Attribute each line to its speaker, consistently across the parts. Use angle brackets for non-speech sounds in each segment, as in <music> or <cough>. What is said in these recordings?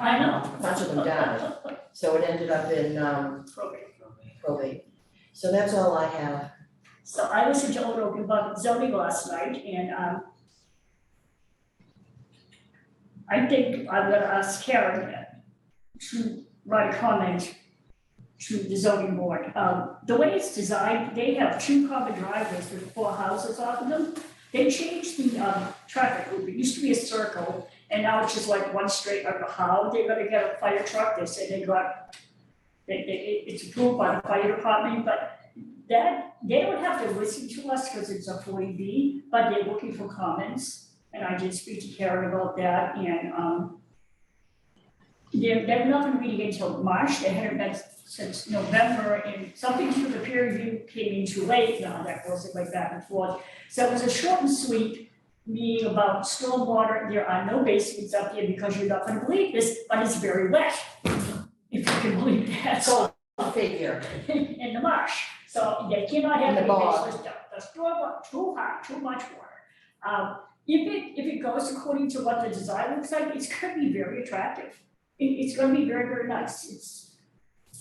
Speaker 1: I know.
Speaker 2: a bunch of them died, so it ended up in um
Speaker 1: Program.
Speaker 2: probate. So that's all I have.
Speaker 1: So I listened to Old Open Book zoning last night and, um, I think I'm gonna ask Karen to write a comment to the zoning board. Um, the way it's designed, they have two common driveways with four houses off of them. They changed the, um, traffic route. It used to be a circle and now it's just like one straight, I don't know how they're gonna get a fire truck. They said they got, they, they, it's approved by the fire department, but that, they would have to listen to us because it's a forty B, but they're looking for comments. And I did speak to Karen about that and, um, they're, they're not gonna meet again until March, they haven't met since November and something through the peer review came in too late now, that goes like back and forth. So it was a short and sweet meeting about stormwater, there are no basements up here because you're not gonna believe this, but it's very wet. If you can believe that, so
Speaker 2: Figure,
Speaker 1: in the marsh. So they cannot have
Speaker 2: In the
Speaker 1: any
Speaker 2: bog.
Speaker 1: baseless stuff. The store wa- too hot, too much water. Um, if it, if it goes according to what the design looks like, it's gonna be very attractive. It, it's gonna be very, very nice. It's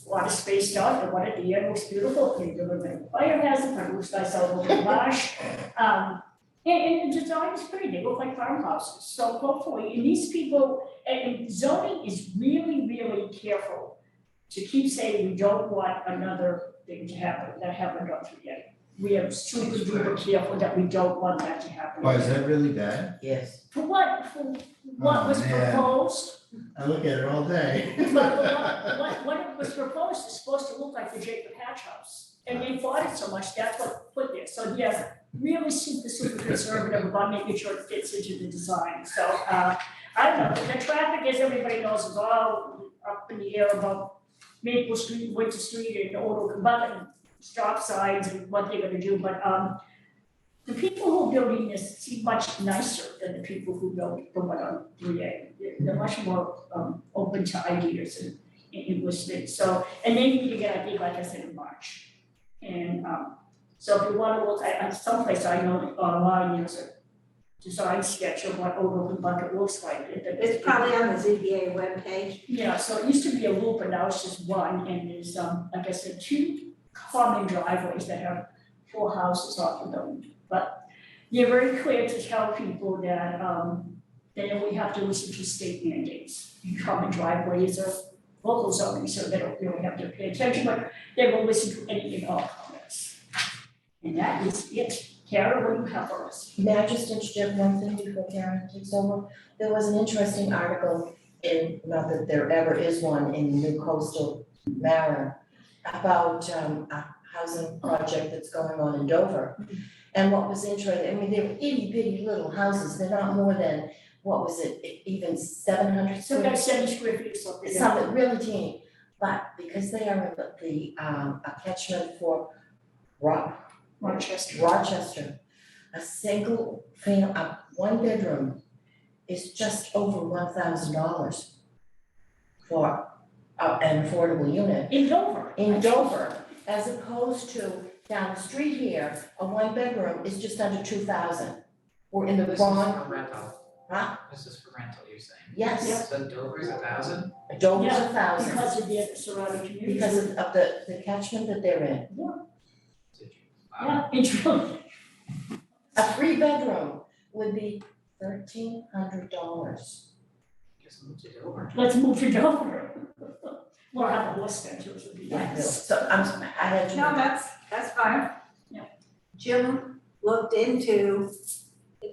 Speaker 1: a lot of spaced out, the one at the end looks beautiful, they deliver a fire hazard, it looks nice out over the marsh. Um, and, and the design is pretty, they look like farmhouses. So hopefully, and these people, and and zoning is really, really careful to keep saying we don't want another thing to happen, that happened up through yet. We are super duper careful that we don't want that to happen.
Speaker 3: Why, is that really bad?
Speaker 2: yes.
Speaker 1: For what, for what was
Speaker 3: Oh, man.
Speaker 1: proposed,
Speaker 3: I look at it all day. <laughs>
Speaker 1: but what, what, what was proposed is supposed to look like the Jacob Hatch House. And they fought it so much, that's what put there, so yes, really super, super conservative about making sure it fits into the design, so, uh, I don't know, the traffic, as everybody knows, is all up in the air about Maple Street, Winter Street, and Old Oak Bucket, stop signs and what they're gonna do, but, um, the people who are building this seem much nicer than the people who built the one on three A. They're, they're much more, um, open to ideas and, and and listening, so, and they need to get, I think, like I said, in March. And, um, so if you wanna look at, at someplace I know online, there's a design sketch of what Old Oak Bucket looks like. It- it-
Speaker 4: It's probably on the ZBA webpage.
Speaker 1: yeah, so it used to be a loop, but now it's just one, and there's, um, like I said, two common driveways that have four houses off of them. But you're very clear to tell people that, um, they only have to listen to state mandates. Common driveways are local zoning, so they don't really have to pay attention, but they will listen to any and all comments. And that is it. Kara, what do you have for us?
Speaker 2: May I just interject one thing before Karen takes over? There was an interesting article in, not that there ever is one, in New Coastal Mariner about um a housing project that's going on in Dover. And what was interesting, I mean, they're itty bitty little houses, they're not more than, what was it, e- even seven hundred
Speaker 1: So
Speaker 2: square
Speaker 1: we got seventy square feet or something.
Speaker 2: It's something really teeny, but because they are in the um a catchment for Ro-
Speaker 1: Rochester.
Speaker 2: Rochester, a single fam, a one bedroom is just over one thousand dollars for a- an affordable unit
Speaker 1: In Dover.
Speaker 2: in Dover, as opposed to down the street here, a one bedroom is just under two thousand. We're in the
Speaker 5: This is
Speaker 2: wrong,
Speaker 5: for rental,
Speaker 2: huh?
Speaker 5: this is for rental, you're saying.
Speaker 2: Yes,
Speaker 5: So Dover's a thousand?
Speaker 2: Dover's a
Speaker 1: Yeah,
Speaker 2: thousand
Speaker 1: Because of the surrounding communities.
Speaker 2: because of of the the catchment that they're in.
Speaker 5: Did you- wow.
Speaker 1: <laughs> Yeah, it's really,
Speaker 2: A three bedroom would be thirteen hundred dollars.
Speaker 5: Just moved to Dover.
Speaker 1: let's move to Dover. <laughs> We'll have a horse bench, which would be nice.
Speaker 2: So I'm, I had to.
Speaker 4: No, that's, that's fine.
Speaker 1: Yeah.
Speaker 4: Jim looked into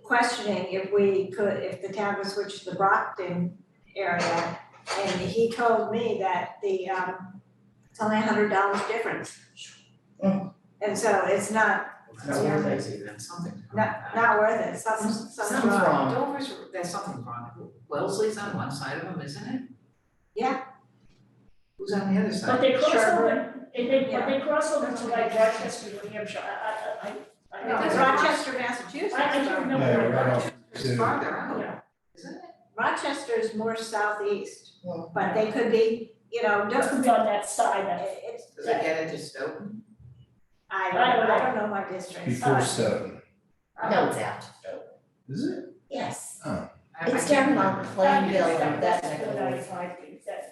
Speaker 4: questioning if we could, if the town would switch to the Brockton area. And he told me that the, um, it's only a hundred dollars difference.
Speaker 2: Mm.
Speaker 4: And so it's not,
Speaker 2: not
Speaker 5: Well, That's
Speaker 2: worth it.
Speaker 5: crazy, then something's wrong.
Speaker 4: not, not worth it, some,
Speaker 2: Sounds
Speaker 4: some
Speaker 2: wrong.
Speaker 5: Dover's, there's something wrong. Wellesley's on one side of them, isn't it?
Speaker 4: Yeah.
Speaker 5: Who's on the other side?
Speaker 1: But they cross
Speaker 4: Sure.
Speaker 1: over, and they, but they cross over to like Rochester, New Hampshire, I, I, I, I don't know.
Speaker 4: Because Rochester, Massachusetts.
Speaker 1: I, I can't remember.
Speaker 3: Yeah, right off
Speaker 5: It's farther out,
Speaker 1: Yeah,
Speaker 5: isn't it?
Speaker 4: Rochester is more southeast,
Speaker 2: Yeah.
Speaker 4: but they could be, you know,
Speaker 1: just
Speaker 4: don't,
Speaker 1: to be on that side, that,
Speaker 4: it's,
Speaker 5: Does it get into Stoughton?
Speaker 4: I don't, I don't know my district,
Speaker 3: Before
Speaker 4: sorry.
Speaker 3: seven,
Speaker 2: No, it's out.
Speaker 3: is it?
Speaker 2: Yes.
Speaker 3: Oh,
Speaker 5: I- I
Speaker 2: It's
Speaker 5: can't
Speaker 2: down on
Speaker 5: remember.
Speaker 2: Plainville,
Speaker 1: That-
Speaker 2: that neck
Speaker 1: That's
Speaker 2: of the
Speaker 1: what I,
Speaker 2: woods.
Speaker 1: I think, that